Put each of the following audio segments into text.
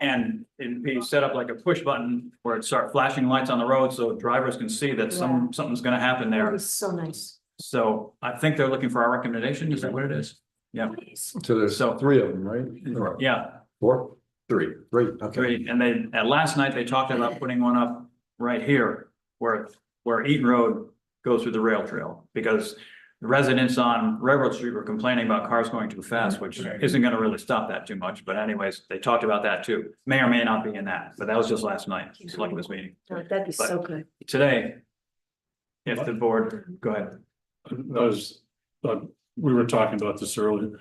And it'd be set up like a push button where it'd start flashing lights on the road so drivers can see that some, something's gonna happen That there. was so nice. So I think they're looking for our recommendation. Is that what it is? Yeah. Please. So there's So- three of them, right? Or Yeah, Four? Three. Three, okay. three. And they, at last night, they talked about putting one up right here where, where Eaton Road goes through the rail trail. Because the residents on Railroad Street were complaining about cars going too fast, which isn't gonna really stop that too much. But anyways, they talked about that too. May or may not be in that, but that was just last night, select this meeting. Oh, That'd be so good. Today, if the board, go ahead. That was, uh, we were talking about this earlier.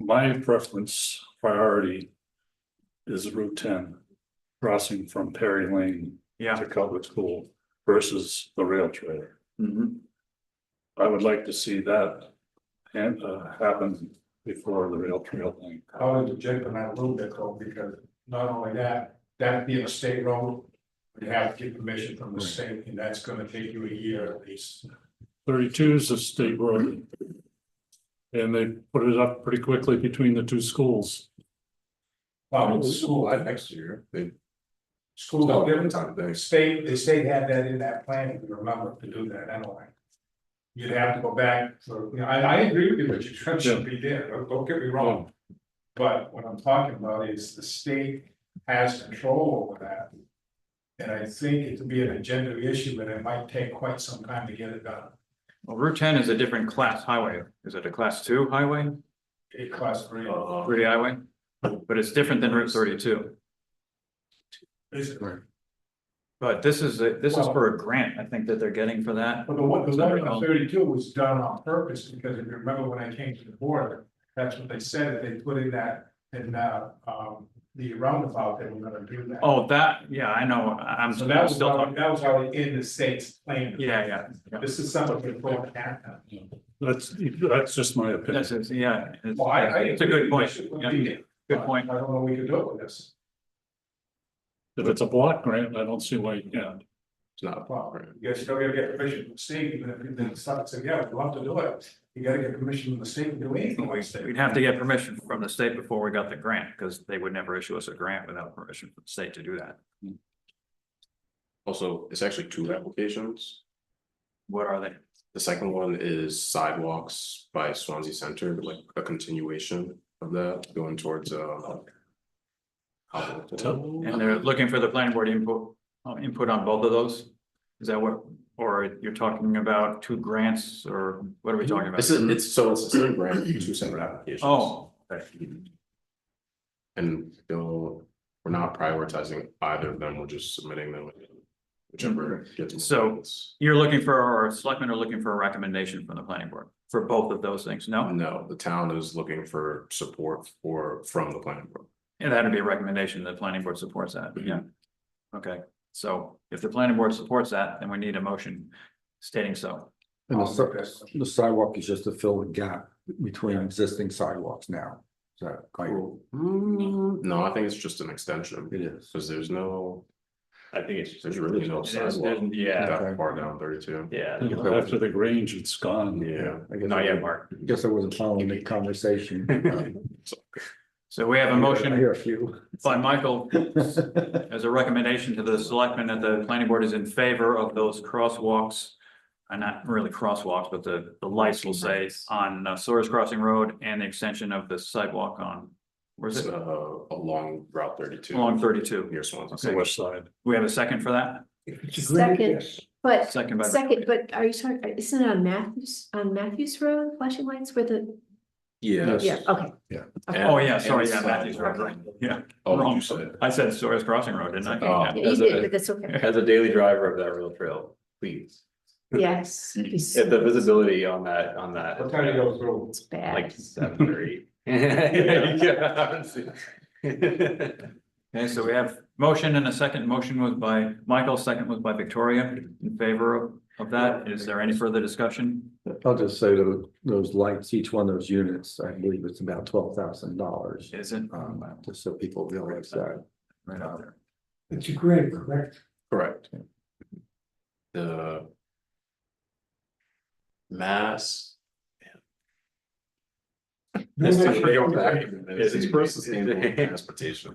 My preference priority is Route ten, crossing from Perry Lane Yeah. to Culver School versus the rail trail. Mhm. I would like to see that and uh, happen before the rail trail thing. I would object on that a little bit though, because not only that, that being a state road. You have to get permission from the state and that's gonna take you a year at least. Thirty-two is a state road. And they put it up pretty quickly between the two schools. Well, the school, I- next year, they. school, the state, the state had that in that plan, if you remember, to do that anyway. You'd have to go back, so, you know, I, I agree with you, but you should be there, don't- don't get me wrong. But what I'm talking about is the state has control over that. And I think it could be an agenda issue, but it might take quite some time to get it done. Well, Route ten is a different class highway. Is it a class two highway, A class three. Uh, three highway? But it's different than Route thirty-two. Is it? But this is, a- this is Well- for a grant, I think that they're getting for that. But the one, the Is that one on right? thirty-two was done on purpose, because if you remember when I came to the board, that's what they said, that they put in that, in that, um, the roundabout, they were gonna do that. Oh, that, yeah, I know, I- I'm So that I'm was, still already- talking. that was already in the state's plan. Yeah, yeah, yeah. This is something we're going after. That's, that's just my opinion. That's, it, yeah. it's- Well, I, I. It's a good point. agree. Yeah, Good point. I don't know what we could do with this. If it's a block grant, I don't see why you can't. Well, you guys still gotta get permission from the state, even if you then start to say, yeah, we'd love to do it. You gotta get permission from the state to do anything like that. We'd have to get permission from the state before we got the grant, because they would never issue us a grant without permission from the state to do that. Also, it's actually two applications. What are they? The second one is sidewalks by Swansea Center, like a continuation of that going towards uh. Tell- And they're looking for the planning board input, uh, input on both of those? Is that what, or you're talking about two grants, or what are we talking about? This is, it's, so it's the same grant, two separate applications. Oh, And still, we're not prioritizing either of them, we're just submitting them. Whichever gets. more So- votes. you're looking for, or selectmen are looking for a recommendation from the planning board for both of those things, no? No, the town is looking for support for, from the planning board. And that'd be a recommendation, the planning board supports that, yeah. Okay, so if the planning board supports that, then we need a motion stating so. And the si- the sidewalk is just to fill the gap between existing sidewalks now. Is that like, Hmm, no, I think it's just an extension. it is? Cause there's no. I think it's. There's really no It is- sidewalk Yeah, that far down thirty-two. yeah. After the Grange, it's gone. Yeah. I guess- Mark. Guess I wasn't following the conversation. Uh, So we have a I motion hear a few. by Michael as a recommendation to the selectmen that the planning board is in favor of those crosswalks. And not really crosswalks, but the, the lights will say on uh, Soares Crossing Road and the extension of the sidewalk on, where's It's it? uh along Route thirty-two. Along thirty-two. Near Swansea. It's the west side. We have a second for that? Second, but, Second by. second, but are you talking, isn't it on Matthews, on Matthews Road, flashing lights where the, Yeah. yeah, okay. Oh, yeah, sorry, And- yeah, and Matthews Road, right, sidewalk. yeah. Oh, what Wrong. you said. I said Soares Crossing Road, didn't I? Oh. Yeah, You did, but that's okay. As a daily driver of that rail trail, please, Yes. it'd be so- if the visibility on that, on that, What time do you go through? It's bad. like seven or eight. Yeah, honestly. Okay, so we have motion and a second. Motion was by Michael, second was by Victoria in favor of, of that. Is there any further discussion? I'll just say that those lights, each one of those units, I believe it's about twelve thousand dollars. Isn't Um, just so people realize that. right out there. It's a great, correct? Correct. The. Mass. This is- I forget what that even is. It's- It's for sustainable transportation.